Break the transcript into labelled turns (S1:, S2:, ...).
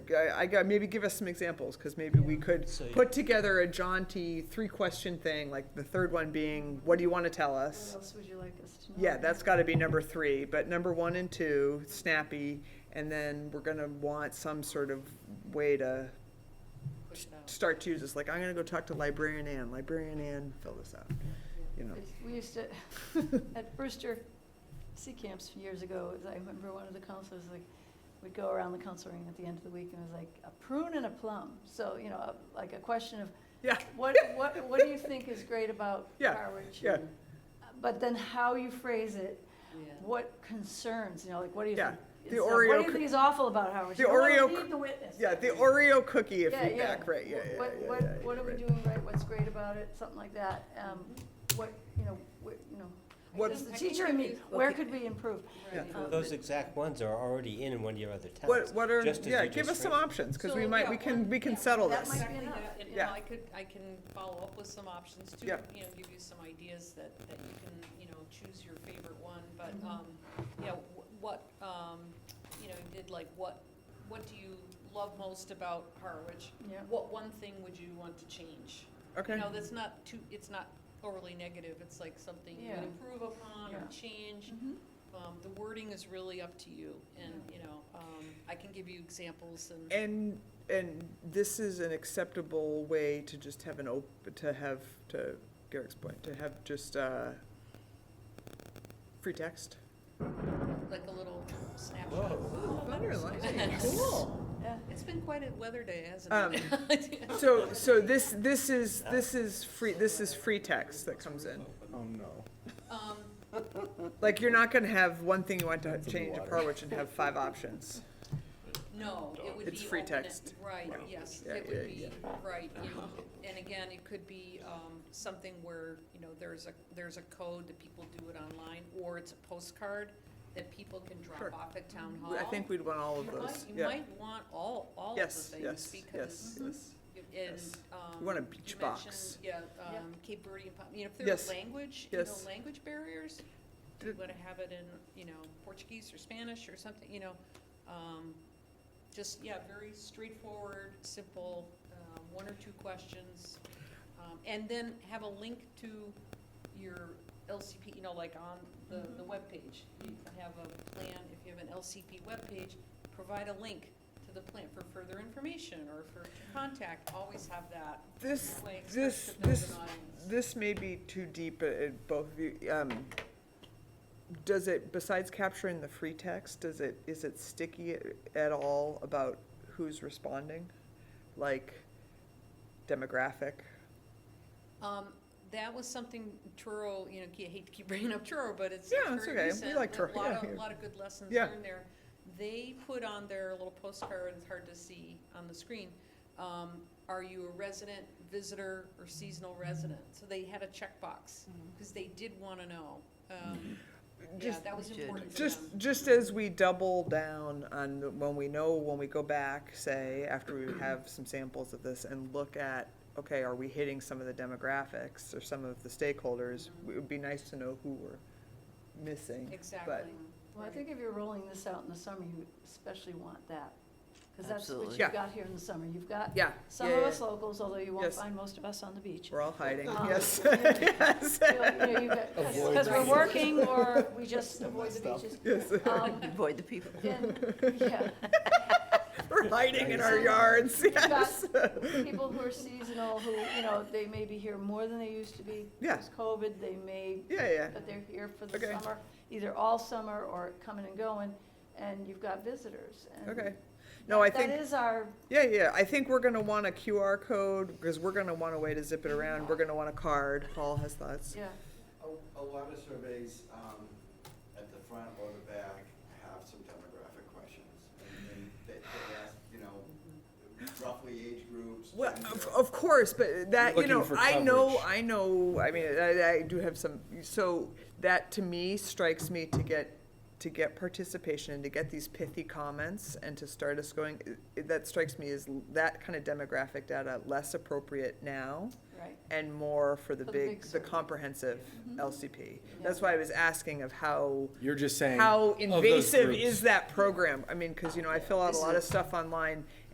S1: I, I got, maybe give us some examples, because maybe we could
S2: So-
S1: put together a jaunty three-question thing, like the third one being, what do you want to tell us?
S3: What else would you like us to know?
S1: Yeah, that's gotta be number three, but number one and two, snappy, and then we're gonna want some sort of way to
S4: push it out.
S1: start to use this, like, I'm gonna go talk to librarian Ann, librarian Ann, fill this out, you know.
S3: It's- We used to, at Brewster Sea Camps years ago, I remember one of the counselors, like, we'd go around the council ring at the end of the week, and it was like, a prune and a plum. So, you know, a- like a question of,
S1: Yeah,
S3: what, what, what do you think is great about
S1: Yeah,
S3: Harwich?
S1: yeah.
S3: But then how you phrase it,
S4: Yeah.
S3: what concerns, you know, like, what do you
S1: Yeah,
S3: think?
S1: the
S3: is-
S1: Oreo
S3: uh, What do
S1: coo-
S3: you think is awful about Harwich?
S1: the
S3: You don't wanna
S1: Oreo coo-
S3: Lead the witness.
S1: yeah, the Oreo cookie
S3: Yeah, yeah.
S1: feedback, right, yeah, yeah,
S3: What,
S1: yeah,
S3: what,
S1: yeah, yeah,
S3: what are we
S1: right.
S3: doing right, what's great about it, something like that, um, what, you know, what, you know,
S1: What-
S3: does the
S4: I think
S3: teacher
S4: if
S3: in me,
S4: you look
S3: where
S4: at-
S3: could we improve?
S4: Right.
S3: Um,
S2: Those exact ones are already in one of your other towns.
S1: What, what are,
S2: just as
S1: yeah,
S2: you
S1: give
S2: just
S1: us some
S2: read.
S1: options, because we
S4: So,
S1: might,
S4: yeah,
S1: we can,
S4: one-
S1: we can
S4: yeah,
S1: settle
S3: that
S1: this.
S3: might be
S4: Exactly
S3: enough,
S4: that. And, you
S1: yeah.
S4: know, I could, I can follow up with some options to, you
S1: Yeah.
S4: know, give you some ideas that, that you can, you know, choose your favorite one, but, um, you know, wh- what, um, you know, you did like, what, what do you love most about Harwich?
S3: Yeah.
S4: What one thing would you want to change? You
S1: Okay,
S4: know, that's not too, it's not overly negative, it's like something you
S3: Yeah.
S4: would improve upon or
S3: Yeah.
S4: change.
S3: Mhm.
S4: Um, the wording is really up to you, and, you know, um, I can give you examples and.
S1: and, and this is an acceptable way to just have an op, to have, to Garrick's point, to have just, uh, free text.
S4: like a little snapshot.
S2: Whoa.
S1: Thunder and lightning, cool.
S3: Yeah,
S4: It's been quite a weather day,
S1: Um,
S4: hasn't it?
S1: So, so this, this is, this is free, this is free text that comes in.
S5: Oh, no.
S4: Um,
S1: Like, you're not gonna have one thing you want to
S5: That's in the
S1: change at
S5: water.
S1: Harwich and have five options.
S4: no, it would be.
S1: It's free
S4: open at-
S1: text.
S4: Right, yes,
S1: Yeah,
S4: it
S1: yeah,
S4: would be, right, you- and again, it could be, um, something where, you know, there's a, there's a code that people do it online, or it's a postcard that people can
S1: Sure.
S4: drop off at town hall.
S1: I think we'd want all of
S4: You might-
S1: those,
S4: You
S1: yeah.
S4: might want all, all of the
S1: Yes,
S4: things,
S1: yes, yes, yes.
S4: because, you- and,
S1: yes.
S4: um.
S1: We want a beach
S4: you
S1: box.
S4: mentioned, Yeah,
S3: Yeah.
S4: um, Cape Verdean, pop- you know, if
S1: Yes,
S4: there's language, you know,
S1: yes.
S4: language barriers, do you
S1: Did-
S4: wanna have it in, you know, Portuguese or Spanish or something, you know? Um, just, yeah, very straightforward, simple, uh, one or two questions. Um, and then have a link to your LCP, you know, like on the, the webpage. You can have a plan, if you have an LCP webpage, provide a link to the plan for further information or for to contact, always have that.
S1: This,
S4: That way it's
S1: this,
S4: expected there's
S1: this,
S4: an audience.
S1: this may be too deep, uh, uh, both of you, um, does it, besides capturing the free text, does it, is it sticky a- at all about who's responding? Like demographic?
S4: Um, that was something Truro, you know, I hate to keep bringing up Truro, but it's
S1: Yeah, it's
S4: very
S1: okay. We
S4: recent.
S1: like Truro,
S4: A lot
S1: yeah,
S4: of,
S1: yeah.
S4: lot of good lessons
S1: Yeah.
S4: learned there. They put on their little postcard, it's hard to see on the screen, um, are you a resident, visitor, or seasonal resident? So they had a checkbox, because they did wanna know. Um, yeah,
S1: Just-
S4: that was important to
S1: Just,
S4: them.
S1: just as we double down on, the- when we know, when we go back, say, after we have some samples of this and look at, okay, are we hitting some of the demographics or some of the stakeholders? It would be nice to know who we're missing.
S4: Mm-hmm. Exactly.
S3: well, I think if you're rolling this out in the summer, you especially want that, because that's what
S6: Absolutely.
S3: you've
S1: Yeah.
S3: got here in the summer, you've got
S1: Yeah.
S3: some of us locals, although you won't
S1: Yes.
S3: find most of us on the beach.
S1: We're all hiding,
S3: Um,
S1: yes, yes,
S5: Avoid
S3: Because we're
S5: that.
S3: working, or we just avoid the
S5: messed
S3: beaches.
S1: yes.
S3: Um,
S6: Avoid the people.
S3: and, yeah,
S1: We're hiding in our yards,
S3: You've got
S1: yes.
S3: people who are seasonal, who, you know, they may be here more than they used to be.
S1: Yeah.
S3: It's COVID, they may,
S1: Yeah, yeah,
S3: but they're here for the
S1: Okay.
S3: summer, either all summer or coming and going, and you've got visitors. and
S1: okay. No, I
S3: that- That
S1: think,
S3: is our,
S1: yeah, yeah, I think we're gonna want a QR code, because we're gonna want a way to zip it around, we're gonna want a card, Paul has thoughts.
S3: yeah,
S7: A, a lot of surveys, um, at the front or the back have some demographic questions. And, and they, they ask, you know, roughly age groups.
S1: Mm-hmm. Well,
S7: gender.
S1: of, of course, but that, you
S5: Looking
S1: know,
S5: for
S1: I know,
S5: coverage.
S1: I know, I mean, I, I do have some, so that to me strikes me to get, to get participation and to get these pithy comments and to start us going, i- that strikes me as l- that kind of demographic data less appropriate now
S3: right.
S1: and more for the
S3: For the
S1: big,
S3: big
S1: the
S3: survey.
S1: comprehensive LCP. That's why I was asking of how,
S5: You're just saying.
S1: how
S5: of those
S1: invasive
S5: groups.
S1: is that program? I mean, cause you know, I fill out a
S6: This
S1: lot of
S6: is-
S1: stuff online